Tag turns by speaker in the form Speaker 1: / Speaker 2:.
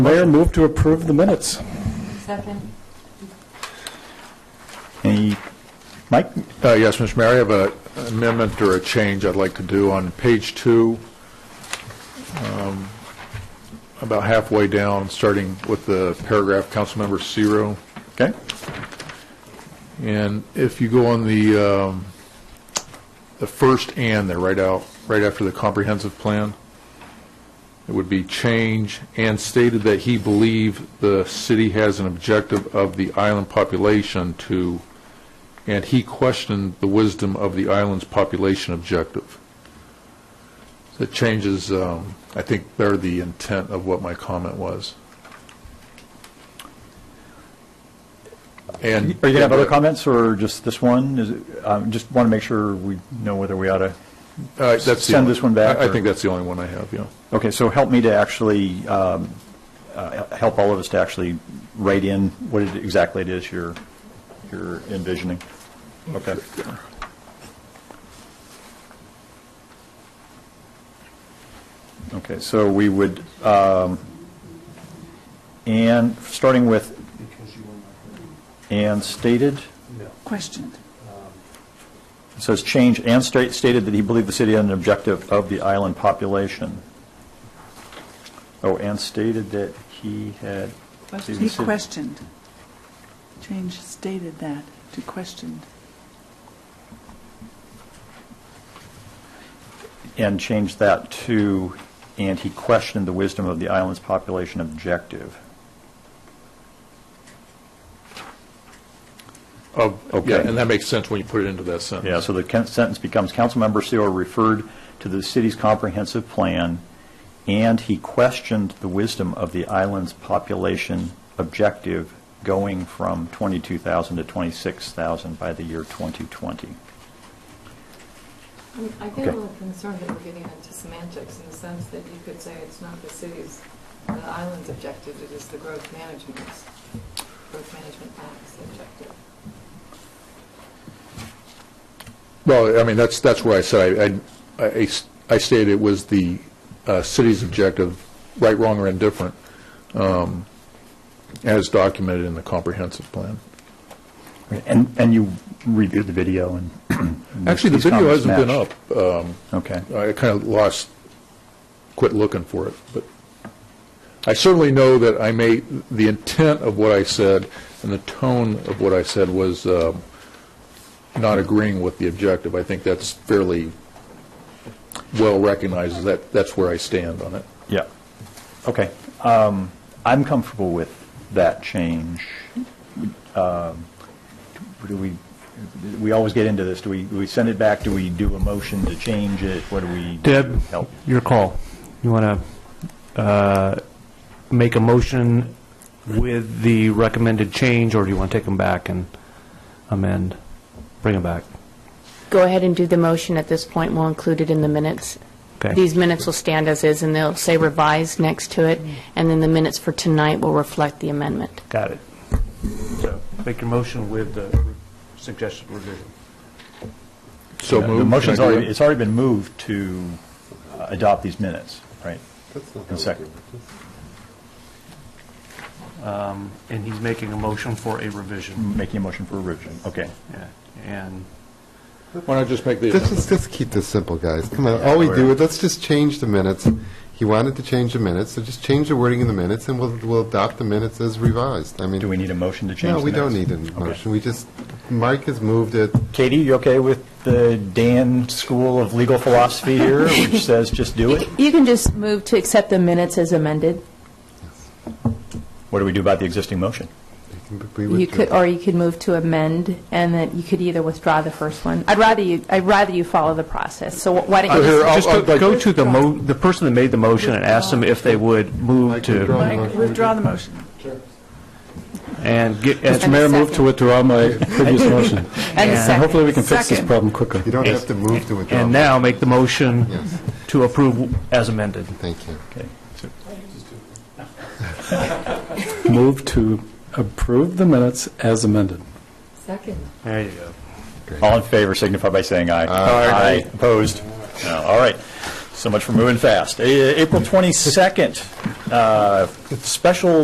Speaker 1: Mayor, move to approve the minutes.
Speaker 2: Second.
Speaker 1: Any, Mike?
Speaker 3: Uh, Yes, Mr. Mayor, I have an amendment or a change I'd like to do on page two, um, about halfway down, starting with the paragraph, Councilmember Zero.
Speaker 1: Okay.
Speaker 3: And if you go on the, um, the first "and" there, right out, right after the comprehensive plan, it would be change "and stated that he believed the city has an objective of the island population to, and he questioned the wisdom of the island's population objective." That changes, um, I think, there the intent of what my comment was.
Speaker 1: Are
Speaker 3: And
Speaker 1: you going to have other comments, or just this one? Is it, um, Just want to make sure we know whether we ought to,
Speaker 3: Uh, that's the
Speaker 1: Send
Speaker 3: only-
Speaker 1: this one back,
Speaker 3: I I
Speaker 1: or-
Speaker 3: think that's the only one I have, yeah.
Speaker 1: okay, so help me to actually, um, uh, help all of us to actually write in what it- exactly it is you're you're envisioning. Okay. Okay, so we would, um, and, starting with, and stated?
Speaker 4: Question.
Speaker 1: It says change, and state- stated that he believed the city had an objective of the island population. Oh, and stated that he had.
Speaker 4: He questioned. Change stated that to questioned.
Speaker 1: And changed that to, and he questioned the wisdom of the island's population objective.
Speaker 3: Of,
Speaker 1: Oh, Okay.
Speaker 3: yeah, and that makes sense when you put it into that sentence.
Speaker 1: Yeah, so the con- sentence becomes, Councilmember Seor referred to the city's comprehensive plan, and he questioned the wisdom of the island's population objective going from 22,000 to 26,000 by the year 2020.
Speaker 2: I get a
Speaker 1: Okay.
Speaker 2: little concerned that we're getting into semantics in the sense that you could say it's not the city's, the island's objective, it is the growth management's, growth management act's objective.
Speaker 3: Well, I mean, that's, that's where I said, I, I- I s- I stated it was the uh, city's objective, right, wrong, or indifferent, um, as documented in the comprehensive plan.
Speaker 1: And, and you reviewed the video and. and
Speaker 3: Actually, the
Speaker 1: these
Speaker 3: video
Speaker 1: comments
Speaker 3: hasn't been
Speaker 1: matched.
Speaker 3: up. Um,
Speaker 1: Okay.
Speaker 3: I kind of lost, quit looking for it, but I certainly know that I made, the intent of what I said and the tone of what I said was um, not agreeing with the objective. I think that's fairly well recognized, that, that's where I stand on it.
Speaker 1: Yeah. Okay. Um, I'm comfortable with that change. Um, Do we, we always get into this. Do we, do we send it back? Do we do a motion to change it? What do we?
Speaker 5: Deb,
Speaker 1: Help.
Speaker 5: your call. You want to make a motion with the recommended change, or do you want to take them back and amend? Bring them back.
Speaker 6: Go ahead and do the motion at this point, we'll include it in the minutes.
Speaker 5: Okay.
Speaker 6: These minutes will stand as is, and they'll say revised next to it, and then the minutes for tonight will reflect the amendment.
Speaker 5: Got it. So make your motion with the suggested revision.
Speaker 3: So
Speaker 1: The
Speaker 3: moved.
Speaker 1: the motion's
Speaker 3: Can I do
Speaker 1: already,
Speaker 3: that?
Speaker 1: it's already been moved to uh, adopt these minutes, right? And second.
Speaker 7: And he's making a motion for a revision.
Speaker 1: Making a motion for a revision. Okay.
Speaker 7: Yeah. And
Speaker 3: Why not just make the
Speaker 8: Let's just,
Speaker 3: amendment?
Speaker 8: let's keep this simple, guys. Come on, all we do is, let's just change the minutes. He wanted to change the minutes, so just change the wording in the minutes, and we'll, we'll adopt the minutes as revised. I mean,
Speaker 1: Do we need a motion to change
Speaker 8: no,
Speaker 1: the
Speaker 8: we don't
Speaker 1: minutes?
Speaker 8: need a
Speaker 1: Okay.
Speaker 8: motion. We just, Mike has moved it.
Speaker 1: Katie, you okay with the Dan School of Legal Philosophy here, which says just do it?
Speaker 9: You can just move to accept the minutes as amended.
Speaker 1: What do we do about the existing motion?
Speaker 8: We
Speaker 9: You
Speaker 8: withdrew.
Speaker 9: could, or you could move to amend, and then you could either withdraw the first one. I'd rather you, I'd rather you follow the process, so why don't you...
Speaker 3: Here, I'll-
Speaker 5: Just
Speaker 3: I'll-
Speaker 5: go-
Speaker 3: like-
Speaker 5: go to the mo, the person that made the motion and ask them if they would move
Speaker 8: Mike, withdraw
Speaker 5: to,
Speaker 8: the
Speaker 4: Mike,
Speaker 8: motion.
Speaker 4: withdraw the motion.
Speaker 5: and get, and
Speaker 9: Mr. Mayor, move to
Speaker 5: withdraw my previous motion.
Speaker 9: And a second.
Speaker 5: hopefully we
Speaker 4: can fix this Second.
Speaker 5: problem quicker.
Speaker 8: You don't have to move to withdraw.
Speaker 5: And now make the motion
Speaker 8: Yes.
Speaker 5: to approve as amended.
Speaker 8: Thank you.
Speaker 1: Okay.
Speaker 10: Move to approve the minutes as amended.
Speaker 2: Second.
Speaker 5: There you go.
Speaker 1: All in favor signify by saying aye.
Speaker 8: Aye.
Speaker 1: Opposed? No. All right. So much for moving fast. A- April 22nd, uh, special